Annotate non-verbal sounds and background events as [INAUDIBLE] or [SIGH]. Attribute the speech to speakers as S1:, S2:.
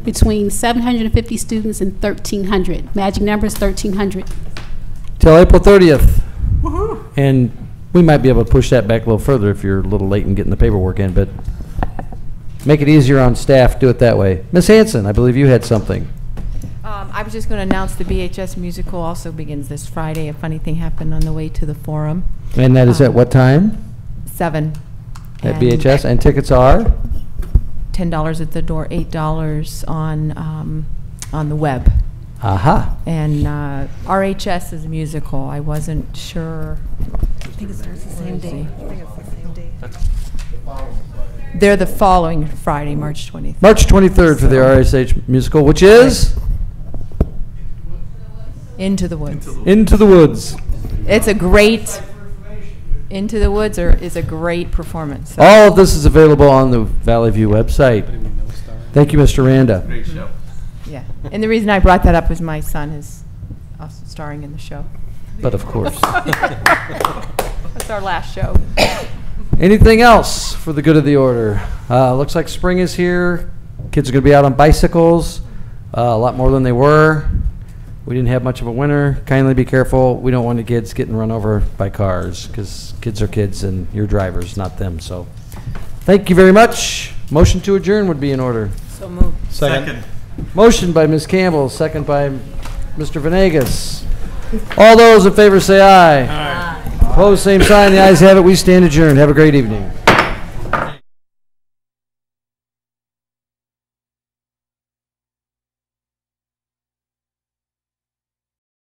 S1: between 750 students and 1,300. Magic number is 1,300.
S2: till April 30th. And we might be able to push that back a little further if you're a little late in getting the paperwork in, but make it easier on staff, do it that way. Ms. Hanson, I believe you had something.
S3: Um, I was just going to announce the BHS musical also begins this Friday. A funny thing happened on the way to the forum,
S2: And that is at what time?
S3: seven.
S2: At
S3: Uh, And
S2: BHS, and tickets are?
S3: Ten dollars at the door, eight dollars on, um, on the web.
S2: Aha.
S3: And, uh, RHS is a musical. I wasn't sure. I think it starts the same day. They're the following Friday, March twentieth.
S2: March 23rd for the RSH musical, which is
S3: Into the Woods.
S2: Into the Woods.
S3: It's a great, Into the Woods are, is a great performance. so-
S2: All of this is available on the Valley View website. Thank you, Mr. Randa.
S3: Yeah, and the reason I brought that up was my son is also starring in the show.
S2: But of course.
S3: [LAUGHS] That's our last show.
S2: Anything else for the good of the order? Uh, looks like spring is here. Kids are going to be out on bicycles, uh, a lot more than they were. We didn't have much of a winter. Kindly be careful. We don't want the kids getting run over by cars because kids are kids and you're drivers, not them. So, thank you very much. Motion to adjourn would be in order.
S4: Second.
S2: Motion by Ms. Campbell, second by Mr. Venegas. All those in favor say aye. Aye. Opposed, same sign. The ayes have it. We stand adjourned. Have a great evening.